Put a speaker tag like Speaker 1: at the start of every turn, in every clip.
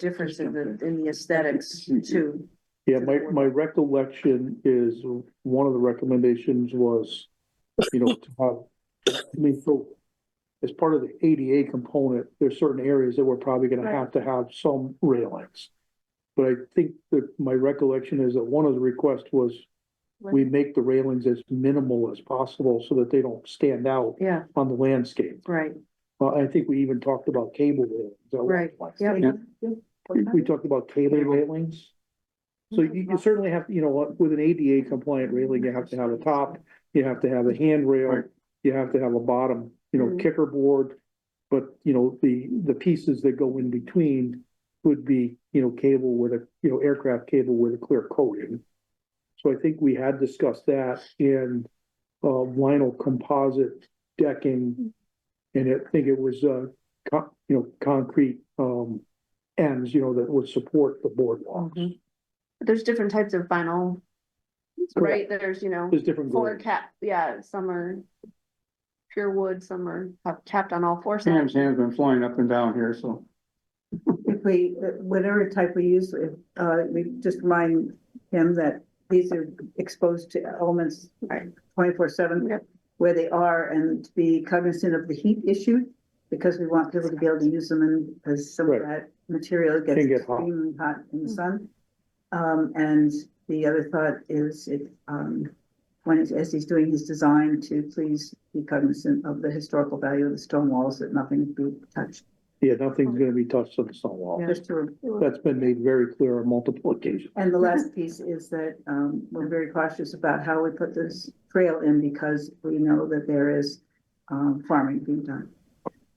Speaker 1: difference in the, in the aesthetics too.
Speaker 2: Yeah, my, my recollection is one of the recommendations was, you know, to have, I mean, so as part of the ADA component, there's certain areas that we're probably gonna
Speaker 1: Right.
Speaker 2: have to have some railings. But I think that my recollection is that one of the requests was we make the railings as minimal as possible so that they don't stand out
Speaker 1: Yeah,
Speaker 2: on the landscape.
Speaker 1: right,
Speaker 2: Uh, I think we even talked about cable railings. at one
Speaker 1: Right,
Speaker 2: point.
Speaker 1: yeah.
Speaker 2: We, we talked about cable railings. So you, you certainly have, you know, what, with an ADA compliant railing, you have to have a top, you have to have a handrail,
Speaker 3: Right.
Speaker 2: you have to have a bottom, you know,
Speaker 1: Mhm.
Speaker 2: kicker board. But, you know, the, the pieces that go in between would be, you know, cable with a, you know, aircraft cable with a clear coating. So I think we had discussed that in, uh, vinyl composite decking. And I think it was, uh, con- you know, concrete, um, ends, you know, that would support the boardwalks.
Speaker 1: Mhm. There's different types of vinyl, right? There's, you know,
Speaker 2: There's different
Speaker 1: fuller
Speaker 2: grades.
Speaker 1: cap, yeah, some are pure wood, some are have capped on all four
Speaker 3: Sam's
Speaker 1: sides.
Speaker 3: hand's been flying up and down here, so.
Speaker 4: If we, whatever type we use, if, uh, we just remind him that these are exposed to elements
Speaker 1: Right.
Speaker 4: twenty-four seven
Speaker 1: Yep.
Speaker 4: where they are and to be cognizant of the heat issue because we want people to be able to use them and because some of that material gets
Speaker 2: Can get hot.
Speaker 4: extremely hot in the
Speaker 1: Mm.
Speaker 4: sun. Um, and the other thought is if, um, when, he's- as he's doing his design to please be cognizant of the historical value of the stone walls, that nothing be touched,
Speaker 2: Yeah, nothing's gonna be touched on the stone wall.
Speaker 1: Oh. Yeah.
Speaker 4: just to
Speaker 2: That's been made very clear on multiple occasions.
Speaker 4: And the last piece is that um, we're very cautious about how we put this trail in because we know that there is um, farming being done.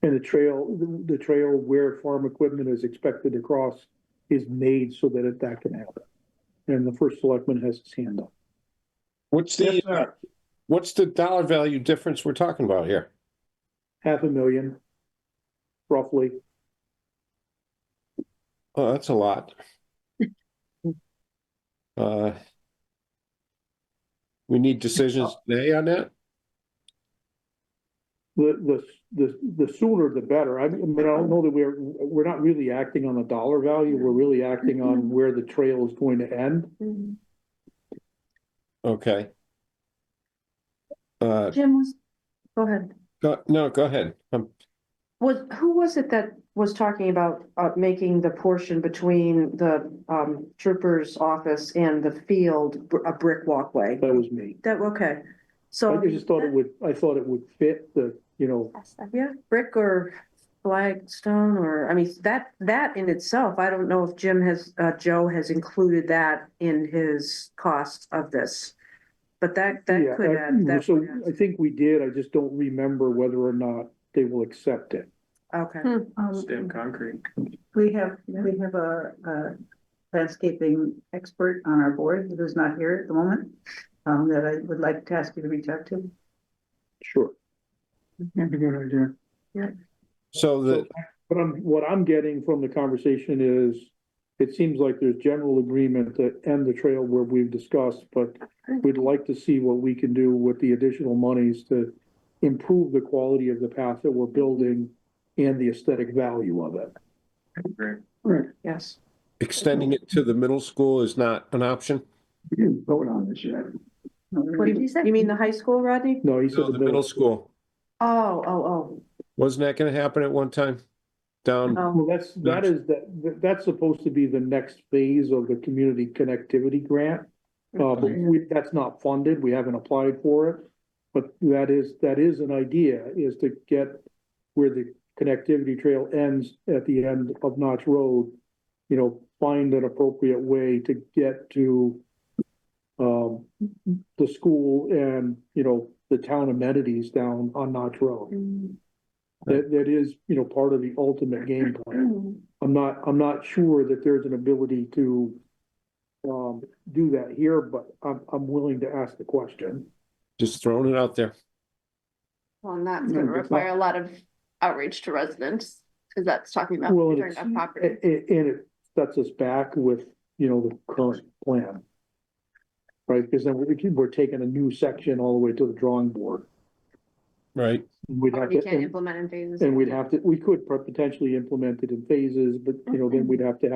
Speaker 2: And the trail, the- the trail where farm equipment is expected to cross is made so that it- that can happen. And the first selectman has his hand up.
Speaker 5: What's
Speaker 3: Yes,
Speaker 5: the, uh,
Speaker 3: sir.
Speaker 5: what's the dollar value difference we're talking about here?
Speaker 2: Half a million, roughly.
Speaker 5: Oh, that's a lot. Uh, We need decisions today on that?
Speaker 2: The, the, the, the sooner the better. I mean, I don't know that we're, we're not really acting on the dollar value. We're really acting
Speaker 1: Mm-hmm.
Speaker 2: on where the trail is going to end.
Speaker 1: Mhm.
Speaker 5: Okay. Uh,
Speaker 1: Jim was, go ahead.
Speaker 5: go- no, go ahead. Um,
Speaker 1: Was, who was it that was talking about, uh, making the portion between the, um, trooper's office and the field br- a brick walkway?
Speaker 2: That was me.
Speaker 1: That, okay, so.
Speaker 2: I just thought it would, I thought it would fit the, you know,
Speaker 1: Yeah, brick or flagstone or, I mean, that, that in itself, I don't know if Jim has, uh, Joe has included that in his cost of this. But that, that
Speaker 2: Yeah,
Speaker 1: could
Speaker 2: I-
Speaker 1: add, that
Speaker 2: So
Speaker 1: could
Speaker 2: I think we did, I just don't remember whether or not they will accept it.
Speaker 1: add, okay.
Speaker 6: Hmm.
Speaker 3: Stamp concrete.
Speaker 4: Um, We have, we have a a landscaping expert on our board who's not here at the moment um, that I would like to ask you to reach out to.
Speaker 2: Sure.
Speaker 3: That's a good idea.
Speaker 5: So the,
Speaker 2: But I'm, what I'm getting from the conversation is, it seems like there's general agreement to end the trail where we've discussed, but we'd like to see what we can do with the additional monies to improve the quality of the path that we're building and the aesthetic value of it.
Speaker 3: Great.
Speaker 1: Yes.
Speaker 5: extending it to the middle school is not an option?
Speaker 3: We didn't vote on this yet.
Speaker 1: What did you say? You mean the high school, Rodney?
Speaker 2: No, he said
Speaker 5: No, the middle school.
Speaker 1: Oh, oh,
Speaker 5: Wasn't that gonna happen at one time? Down,
Speaker 1: oh,
Speaker 2: Well, that's, that is, that, that's supposed to be the next phase of the community connectivity grant. Uh, but
Speaker 3: Okay.
Speaker 2: we, that's not funded, we haven't applied for it, but that is, that is an idea, is to get where the connectivity trail ends at the end of Notch Road. You know, find an appropriate way to get to um, the school and, you know, the town amenities down on Notch Road.
Speaker 1: oh.
Speaker 2: That, that is, you know, part of the ultimate game plan. I'm not, I'm not sure that there's an ability to um, do that here, but I'm, I'm willing to ask the question.
Speaker 5: just throwing it out there.
Speaker 6: Well, and that's
Speaker 3: No,
Speaker 6: gonna
Speaker 3: that's not-
Speaker 6: require a lot of outreach to residents, because that's talking about
Speaker 2: Well, and
Speaker 6: return
Speaker 2: it's-
Speaker 6: of property.
Speaker 2: And, and it sets us back with, you know, the current plan. Right, because then we're, we're taking a new section all the way to the drawing board.
Speaker 5: Right.
Speaker 2: We'd
Speaker 6: Or
Speaker 2: have
Speaker 6: You
Speaker 2: to,
Speaker 6: can't
Speaker 2: and-
Speaker 6: implement in phases.
Speaker 2: and we'd have to, we could potentially implement it in phases, but, you know, then we'd have to have